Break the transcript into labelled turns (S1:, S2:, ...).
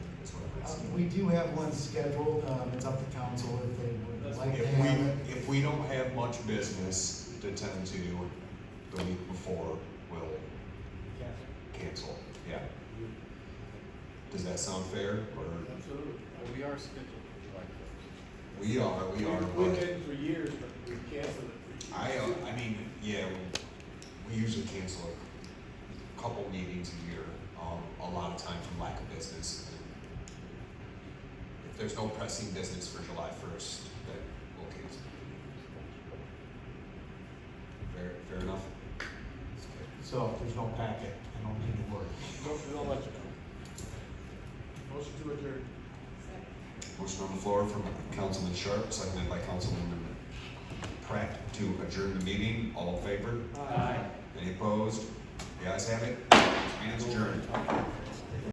S1: it's-
S2: We do have one scheduled, um, it's up to council if they would like to
S1: If
S2: have it.
S1: we, if we don't have much business to tend to the week before, we'll cancel, yeah. Does that sound fair, or,
S3: Absolutely. Well, we are scheduled for July first.
S1: we are, we are,
S3: We've
S1: but
S3: been for years, but we canceled it. for
S1: I,
S3: years.
S1: uh, I mean, yeah, we usually cancel a couple meetings a year, um, a lot of time from lack of business. If there's no pressing business for July first, then we'll cancel. Fair, fair enough?
S2: So if there's no packet, I don't need to worry.
S3: Don't, we don't let you know. Motion to adjourn.
S1: Motion on the floor from Councilman Sharp, seconded by Councilman Pratt to adjourn the meeting. All in favor?
S3: Aye.
S1: Any opposed? The ayes have it. Meeting's adjourned.